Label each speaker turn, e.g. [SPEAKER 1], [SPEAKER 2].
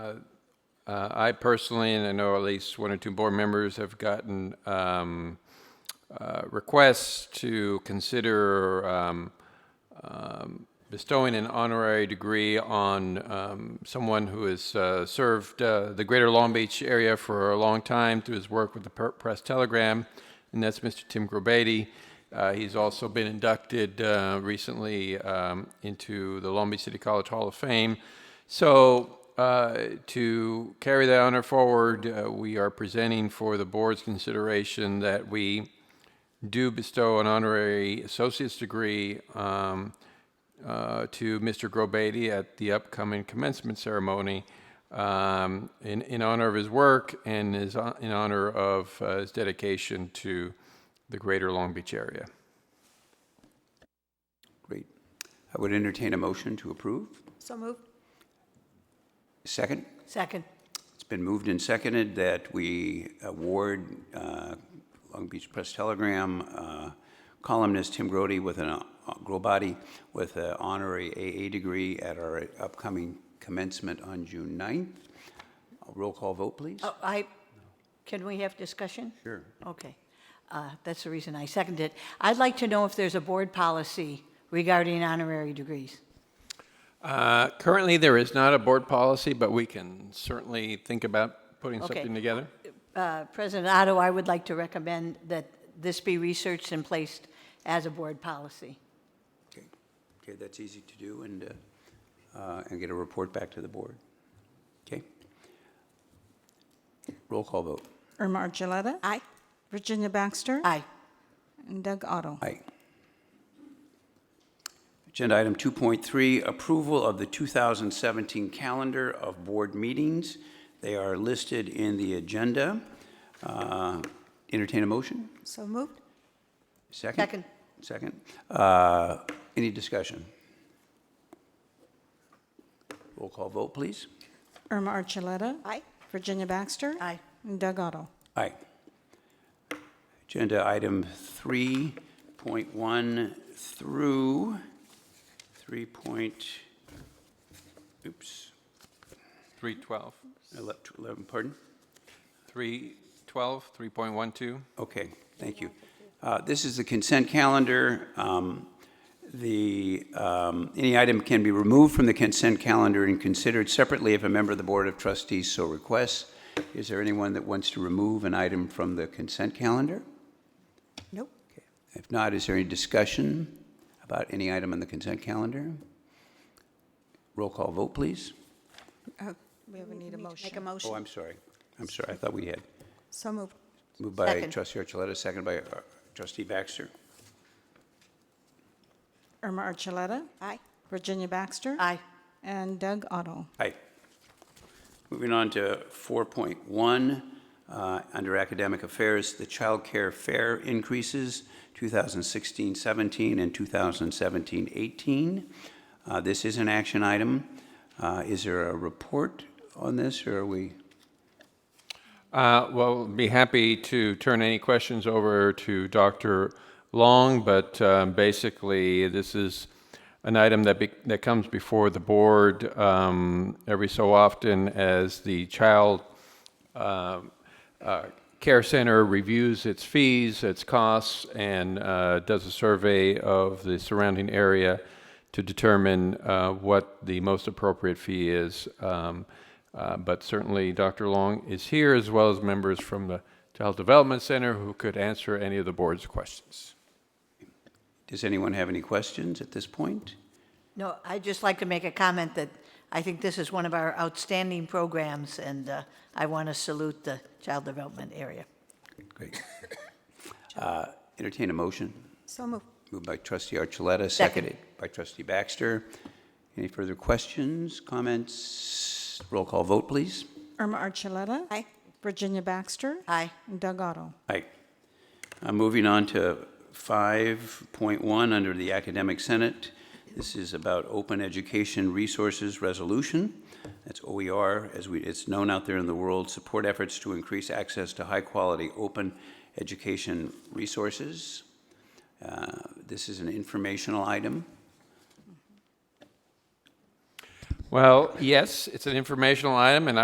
[SPEAKER 1] Uh, I personally, and I know at least one or two board members have gotten um, uh, requests to consider um, um, bestowing an honorary degree on um, someone who has uh, served uh, the greater Long Beach area for a long time through his work with the Per- Press Telegram, and that's Mr. Tim Grobady. Uh, he's also been inducted uh, recently um, into the Long Beach City College Hall of Fame. So, uh, to carry that honor forward, uh, we are presenting for the board's consideration that we do bestow an honorary associate's degree um, uh, to Mr. Grobady at the upcoming commencement ceremony um, in, in honor of his work and his, hon- in honor of uh, his dedication to the greater Long Beach area.
[SPEAKER 2] Great. I would entertain a motion to approve.
[SPEAKER 3] So moved.
[SPEAKER 2] Second,
[SPEAKER 3] Second.
[SPEAKER 2] it's been moved and seconded that we award uh, Long Beach Press Telegram uh, columnist Tim Grody with an, uh, Grobody with an honorary AA degree at our upcoming commencement on June 9th. A Roll call vote, please.
[SPEAKER 3] Oh, I, can we have discussion? Sure. Okay. Uh, That's the reason I seconded it. I'd like to know if there's a board policy regarding honorary degrees.
[SPEAKER 1] Uh, currently, there is not a board policy, but we can certainly think about putting
[SPEAKER 3] Okay.
[SPEAKER 1] something together.
[SPEAKER 3] Uh, President Otto, I would like to recommend that this be researched and placed as a board policy.
[SPEAKER 2] Okay, Okay, that's easy to do and, uh, uh, and get a report back to the board. Okay? Roll call vote.
[SPEAKER 4] Irma Archuleta.
[SPEAKER 3] Aye.
[SPEAKER 4] Virginia Baxter.
[SPEAKER 3] Aye.
[SPEAKER 4] And Doug Otto.
[SPEAKER 2] Aye. Agenda item 2.3, approval of the 2017 calendar of board meetings. They are listed in the agenda. Uh, Entertain a motion?
[SPEAKER 4] So moved.
[SPEAKER 2] Second?
[SPEAKER 3] Second.
[SPEAKER 2] Second. Uh, Any discussion? Roll call vote, please.
[SPEAKER 4] Irma Archuleta.
[SPEAKER 3] Aye.
[SPEAKER 4] Virginia Baxter.
[SPEAKER 3] Aye.
[SPEAKER 4] And Doug Otto.
[SPEAKER 2] Aye. Agenda item 3.1 through 3. point- Oops,
[SPEAKER 1] 312.
[SPEAKER 2] ele- 11, pardon?
[SPEAKER 1] 312, 3.12.
[SPEAKER 2] Okay, thank you. Uh, This is the consent calendar. Um, The, um, any item can be removed from the consent calendar and considered separately if a member of the Board of Trustees so requests. Is there anyone that wants to remove an item from the consent calendar?
[SPEAKER 4] Nope.
[SPEAKER 2] If not, is there any discussion about any item on the consent calendar? Roll call vote, please.
[SPEAKER 4] We have, we need a motion.
[SPEAKER 3] Make a
[SPEAKER 2] Oh,
[SPEAKER 3] motion.
[SPEAKER 2] I'm sorry. I'm sorry, I thought we had.
[SPEAKER 4] So moved.
[SPEAKER 2] Moved by
[SPEAKER 3] Second.
[SPEAKER 2] trustee Archuleta, second by uh, trustee Baxter.
[SPEAKER 4] Irma Archuleta.
[SPEAKER 3] Aye.
[SPEAKER 4] Virginia Baxter.
[SPEAKER 3] Aye.
[SPEAKER 4] And Doug Otto.
[SPEAKER 2] Aye. Moving on to 4.1, uh, under academic affairs, the child care fare increases 2016-17 and 2017-18. Uh, This is an action item. Uh, Is there a report on this, or are we?
[SPEAKER 1] Uh, Well, be happy to turn any questions over to Dr. Long, but um, basically, this is an item that be- that comes before the board um, every so often as the child um, uh, Care Center reviews its fees, its costs, and uh, does a survey of the surrounding area to determine uh, what the most appropriate fee is. Um, uh, But certainly, Dr. Long is here, as well as members from the Child Development Center who could answer any of the board's questions.
[SPEAKER 2] Does anyone have any questions at this point?
[SPEAKER 3] No, I'd just like to make a comment that I think this is one of our outstanding programs, and uh, I want to salute the child development area.
[SPEAKER 2] Great. Uh, Entertain a motion.
[SPEAKER 4] So moved.
[SPEAKER 2] Moved by trustee Archuleta,
[SPEAKER 3] Second.
[SPEAKER 2] seconded by trustee Baxter. Any further questions, comments? Roll call vote, please.
[SPEAKER 4] Irma Archuleta.
[SPEAKER 3] Aye.
[SPEAKER 4] Virginia Baxter.
[SPEAKER 3] Aye.
[SPEAKER 4] And Doug Otto.
[SPEAKER 2] Aye. Uh, Moving on to 5.1, under the Academic Senate. This is about Open Education Resources Resolution. That's OER, as we, it's known out there in the world, support efforts to increase access to high-quality open education resources. Uh, This is an informational item.
[SPEAKER 1] Well, yes, it's an informational item, and